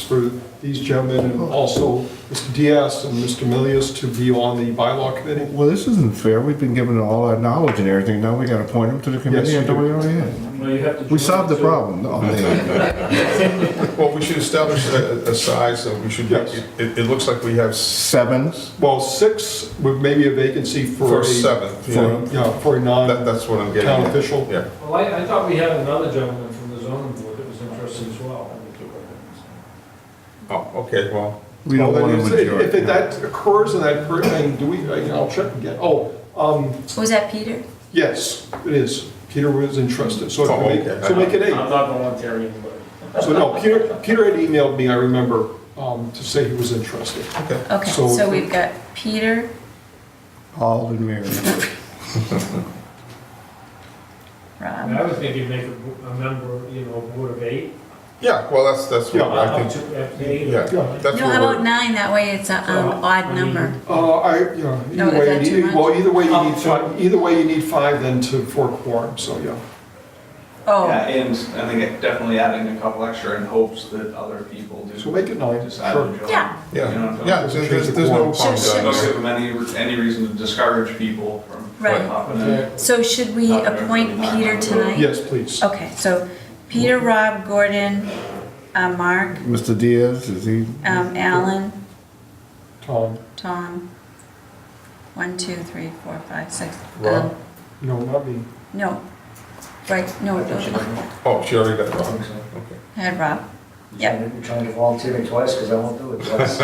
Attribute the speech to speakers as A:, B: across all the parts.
A: for these gentlemen and also Mr. Diaz and Mr. Milius to be on the bylaw committee.
B: Well, this isn't fair. We've been given all our knowledge and everything. Now we gotta point them to the committee
A: Yes,
B: and
A: you
B: do
A: do.
B: it on end.
C: No, you have to.
B: We solved the problem. No, they-
D: Well, we should establish a, a size, so we should,
A: Yes.
D: it, it looks like we have s-
B: Seven.
A: Well, six, with maybe a vacancy for
D: for
A: a.
D: seventh,
A: For,
D: yeah.
A: a- yeah, for a
D: That,
A: non-town
D: that's what I'm getting at.
A: official.
D: Yeah,
C: Well, I, I thought we had another gentleman from the zoning board that was interested as well.
D: oh, okay, well,
B: We don't
A: Well,
B: want a
A: then if- If
B: majority.
A: it- that occurs and that, per- and do we, I- I'll check again. Oh, um,
E: Was that Peter?
A: yes, it is. Peter was interested, so if
D: Oh,
A: we make,
D: okay.
A: so make it eight.
C: I'm not volunteering anybody.
A: So no, Peter, Peter had emailed me, I remember, um, to say he was interested.
D: okay.
E: Okay,
A: So-
E: so we've got Peter,
B: Alden Mary.
C: I mean, I
E: Rob.
C: would maybe make a, bo- a member, you know, board of eight.
D: Yeah, well, that's, that's what
A: Yeah.
D: I
C: Up
D: think,
C: to- up to eight.
D: yeah,
A: Yeah.
D: that's
E: No, how
D: what
E: about
D: we're,
E: nine? That way it's an
C: Well, I
E: odd
C: mean-
E: number.
A: Uh, I, you know,
E: No,
A: either
E: is
A: way,
E: that
A: you
E: too
A: need,
E: much?
A: well, either way, you
F: Um,
A: need five, either way, you need five then to, for a quorum, so yeah.
E: Oh,
F: Yeah, and I think definitely adding a couple extra in hopes that other people do.
A: So make it nine,
F: Decide
A: sure.
F: to join.
E: Yeah.
F: You know what
D: yeah,
F: I'm
D: yeah,
F: saying?
D: there's, there's there's no
E: Sure,
D: harm
E: sure.
F: I Don't
D: done.
F: give them any, any reason to discourage people from
E: Right.
F: popping in.
A: Okay.
E: so should we
F: Not very
E: appoint
F: good.
E: Peter tonight?
A: Yes, please.
E: Okay, so Peter, Rob, Gordon, uh, Mark,
B: Mr. Diaz, is he?
E: um, Alan,
A: Tom,
E: Tom. One, two, three, four, five, six.
D: Rob?
E: Um,
A: no, not me.
E: No, right, no, no,
D: Oh, she already got wrong,
E: I had Rob. Yep.
G: I'm trying to volunteer me twice because I won't do it twice.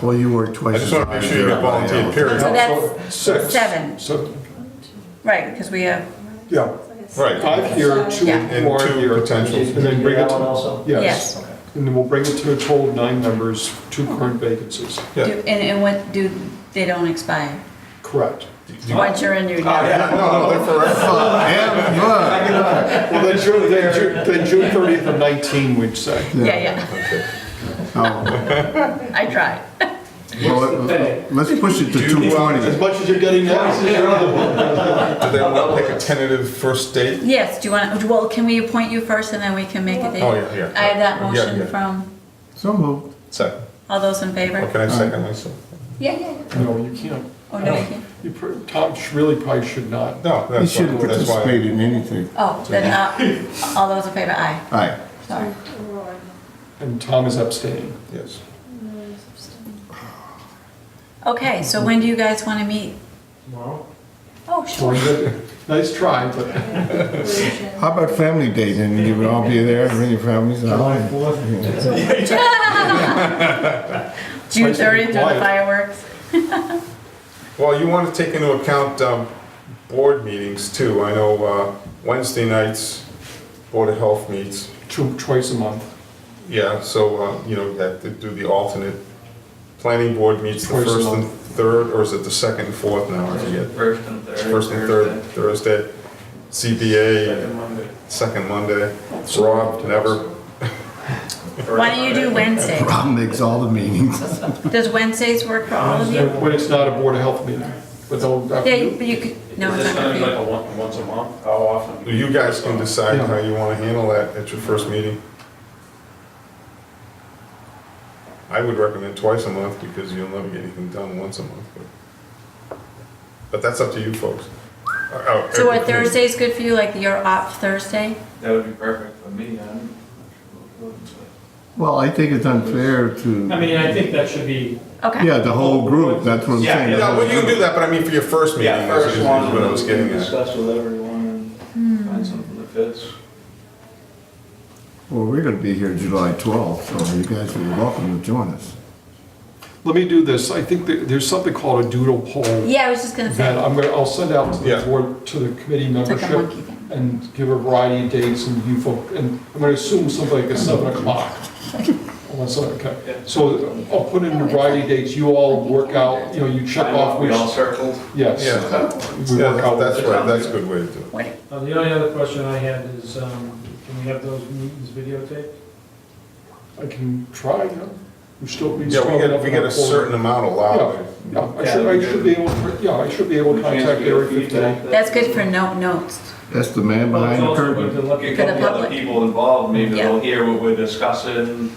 B: Well, you work
D: I
B: twice.
D: just
B: as
D: want to make
B: hard
D: sure you
B: as everybody
D: got volunteer,
B: else.
D: period.
E: So
A: that's six.
E: seven.
A: So,
E: Right, because we have,
A: yeah,
D: Right,
A: five here, two
E: Yeah.
A: more
D: And two
A: here.
D: potentials.
A: And then bring it
G: Alan
A: to,
G: also?
A: yes.
E: yes.
G: Okay.
A: And then we'll bring it to a total of nine members, two current vacancies.
E: Do-
D: Yeah.
E: And, and what, do, they don't expire?
A: Correct.
E: Once you're in, you're
D: Oh,
E: done.
D: yeah, no, no, they're forever.
B: Yeah, look.
A: Well, then June, then June, then June thirtieth of nineteen, we'd say.
E: Yeah, yeah,
B: Oh,
E: I tried.
B: well, let- Let's push it to
D: Do you want-
B: 220.
A: much as you're getting now.
D: Do they want to pick a tentative first date?
E: Yes, do you want, well, can we appoint you first and then we can make a date?
D: Oh, yeah, yeah.
E: I have that
D: Yeah, yeah.
E: motion from,
B: So moved.
D: Second,
E: all those in favor?
D: or can I second myself?
E: Yeah, yeah, yeah.
A: No, you can't.
E: Oh, no, you can't.
A: You, pr- Tom sh- really probably should not.
D: No,
B: He
D: that's why,
B: shouldn't
D: that's why.
B: participate in anything.
E: Oh, then, uh, all those in favor, aye,
B: All right.
E: sorry.
A: And Tom is abstaining.
D: Yes.
E: Okay, so when do you guys want to meet?
C: Tomorrow?
E: Oh,
A: So,
E: sure.
A: Nice try, but
B: How about family day then? You would all be there, bring your families
C: July
B: along.
C: fourth?
E: June thirtieth are the fireworks.
D: Well, you want to take into account um, board meetings too. I know uh, Wednesday nights, Board of Health meets.
A: two, twice a month.
D: Yeah, so, uh, you know, you have to do the alternate. Planning board meets the
A: Twice a
D: first and
A: month.
D: third, or is it the second and fourth now? I forget.
F: First and third.
D: First and third Thursday. CBA,
C: Second Monday.
D: second Monday. Rob, never.
F: Thursday.
E: Why don't you do Wednesday?
B: Rob makes all the meetings.
E: Does Wednesdays work for all of you?
A: When it's not a Board of Health meeting, but they'll,
E: Yeah, but you could, no,
C: Is
E: it's
C: this
E: not gonna
C: gonna be like
E: be.
C: a one, once a month? How often?
D: You guys can decide
A: Yeah.
D: how you want to handle that at your first meeting. I would recommend twice a month because you'll never get anything done once a month. but- But that's up to you folks. Uh, oh,
E: So
D: every
E: are
D: committee.
E: Thursdays good for you, like your op Thursday?
F: That would be perfect for me, I'm. not
B: Well, I think it's unfair to,
C: I mean, I think that should be,
E: Okay.
B: yeah, the whole group, that's what I'm
F: Yeah,
B: saying. the
D: Yeah,
B: whole
D: well, you can do
B: group.
D: that, but I mean for your first
F: sure.
D: meeting.
F: Yeah,
D: that's
F: first
D: what
F: one,
D: I was
F: we can
D: getting at.
F: discuss with everyone
E: Hmm.
F: and find something that fits.
B: Well, we're gonna be here July 12th, so you guys are welcome to join us.
A: Let me do this. I think that there's something called a doodle poll
E: Yeah, I was just gonna
A: that
E: say,
A: I'm gonna, I'll send out to the
D: Yeah.
A: board, to the committee
E: it's like a
A: membership
E: monkey thing.
A: and give a variety of dates and you folk, and I'm gonna assume something like a seven o'clock. Unless,
F: Yeah.
A: okay. So I'll put in a variety of dates. You all work out, you know, you check
F: I know,
A: off
F: We all
A: which,
F: circled.
A: yes.
D: Yeah,
A: We
D: yeah,
A: work out
D: that's
A: which-
D: right, that's a good way to do it.
E: What,
C: uh, the only other question I had is, um, can we have those meetings videotaped?
A: I can try, you know, we still be
D: Yeah,
A: strong
D: we
A: enough.
D: get, we
A: in
D: get
A: our
D: a
A: quorum.
D: certain amount allowed.
A: Yeah, I should, I should be able, to- yeah, I should be able to contact Area 15.
E: That's good for note notes.
B: That's the man behind the curtain.
C: Well, it's also good to look at
F: Get a
E: For the
F: couple other
E: public.
F: people involved, maybe
E: Yeah.
F: they'll hear what we're discussing,